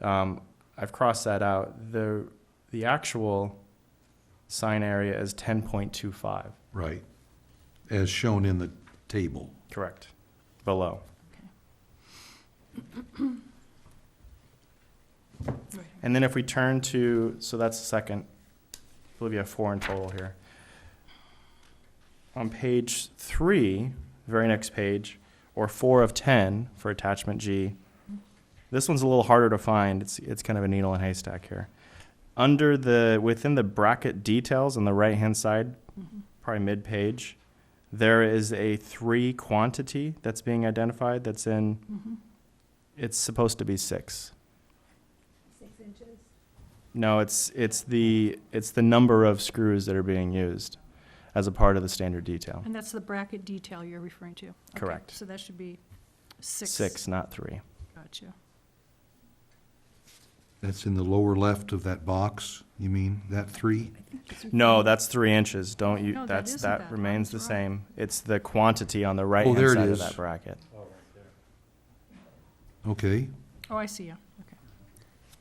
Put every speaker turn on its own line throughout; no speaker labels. Um, I've crossed that out. The, the actual sign area is 10.25.
Right, as shown in the table.
Correct. Below. And then if we turn to, so that's the second, I believe you have four in total here. On page three, very next page, or four of 10 for attachment G, this one's a little harder to find. It's, it's kind of a needle in a haystack here. Under the, within the bracket details on the right-hand side,
Mm-hmm.
probably mid-page, there is a three quantity that's being identified that's in,
Mm-hmm.
it's supposed to be six.
Six inches?
No, it's, it's the, it's the number of screws that are being used as a part of the standard detail.
And that's the bracket detail you're referring to? Okay,
Correct.
So that should be six.
Six, not three.
Gotcha.
That's in the lower left of that box, you mean, that three?
No, that's three inches. Don't you,
Mm-hmm. No, that
that's,
isn't
that
that.
remains the
That's right.
same. It's the quantity on the right-hand
there it
side of
is.
that bracket.
Okay,
Oh, I see, yeah, okay.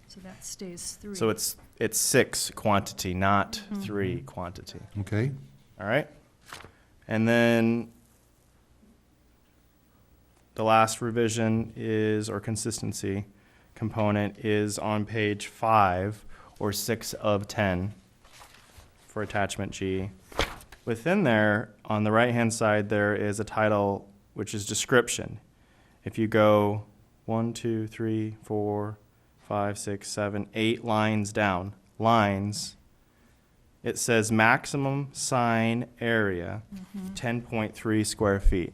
So that stays three.
So it's, it's six quantity, not
Mhm.
three quantity.
okay,
All right. And then the last revision is, or consistency component is on page five or six of 10 for attachment G. Within there, on the right-hand side, there is a title which is description. If you go one, two, three, four, five, six, seven, eight lines down, lines, it says maximum sign area, ten point three square feet.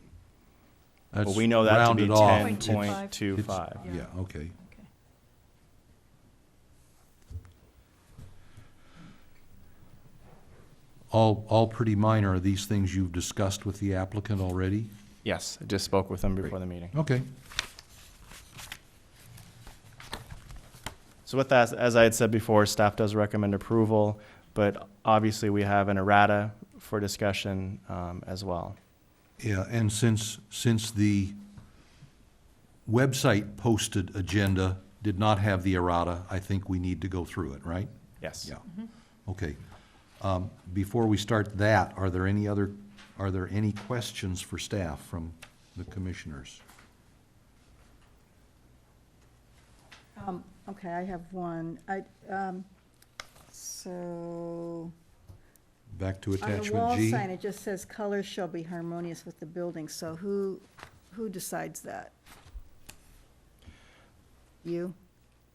that's
Well, we know that to be
rounded off.
ten point
10.25.
two five.
Yeah, okay.
Okay.
All, all pretty minor, are these things you've discussed with the applicant already?
Yes, I just spoke with them before the meeting.
Okay,
So with that, as I had said before, staff does recommend approval, but obviously we have an errata for discussion, um, as well.
yeah, and since, since the website posted agenda did not have the errata, I think we need to go through it, right?
Yes. Mm-hmm.
Yeah, okay. Um, Before we start that, are there any other, are there any questions for staff from the commissioners?
Um, okay, I have one. I, um, so,
Back to
on the
attachment
wall
G?
sign, it just says colors shall be harmonious with the building, so who, who decides that? You?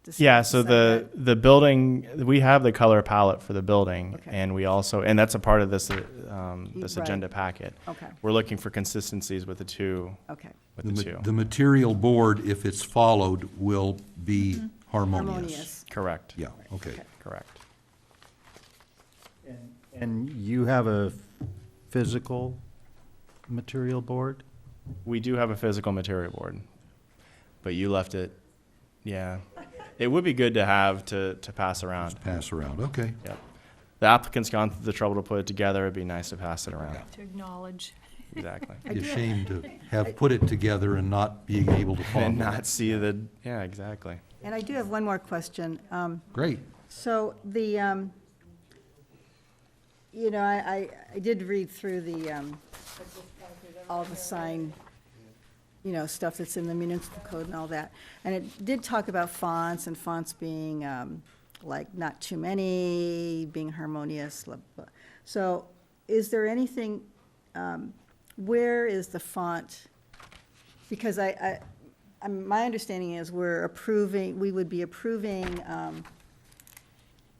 dec-
Yeah, so the,
decide
the building, we have the color palette for the building,
Okay.
and we also, and that's a part of this, uh, um, this
Right.
agenda packet.
that? Okay,
We're looking for consistencies with the two,
okay.
with
The
the
ma-
two.
the material board, if it's followed, will be harmonious.
Mm-hmm. Harmonious.
Correct,
Yeah, okay.
correct.
And- And you have a physical material board?
We do have a physical material board, but you left it, yeah. It would be good to have to, to pass around.
Just pass around, okay.
Yep. The applicant's gone through the trouble to put it together. It'd be nice to pass it around.
Yeah.
To acknowledge.
Exactly.
I do-
Ashamed to have put it together and not being able to follow.
And not see the, yeah, exactly.
And I do have one more question. Um,
Great,
So the, um, you know, I, I, I did read through the, um, all the sign, you know, stuff that's in the municipal code and all that. And it did talk about fonts and fonts being, um, like, not too many, being harmonious, blah, blah. So is there anything, um, where is the font? Because I, I, I'm- my understanding is we're approving, we would be approving, um,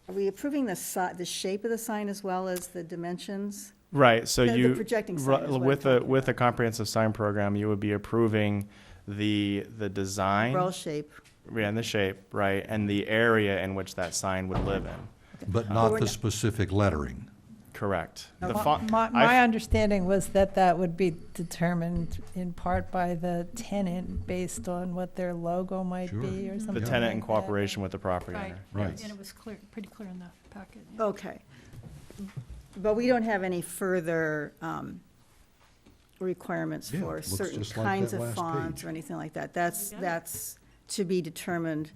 are we approving the si, the shape of the sign as well as the dimensions?
Right, so
The- the
you.
projecting sign
ru-
is what I'm
With a,
talking
with a comprehensive sign program, you would be approving the, the design.
Roll shape,
Yeah, and the shape, right, and the area in which that sign would live in.
but
Or
not the
not.
specific lettering.
Correct.
No,
The
my-
font,
My, my
I've-
understanding was that that would be determined in part by the tenant based on what their logo might
Sure.
be
Mm-hmm.
or something
the
like
tenant in
that.
cooperation with the property
Right.
owner.
Right.
And it was clear, pretty clear in the packet. yeah.
okay. But we don't have any further um, requirements
Yeah,
for
looks
certain
just like
kinds
that
of
last
fonts
page.
or anything like that. That's,
Yeah.
that's to be determined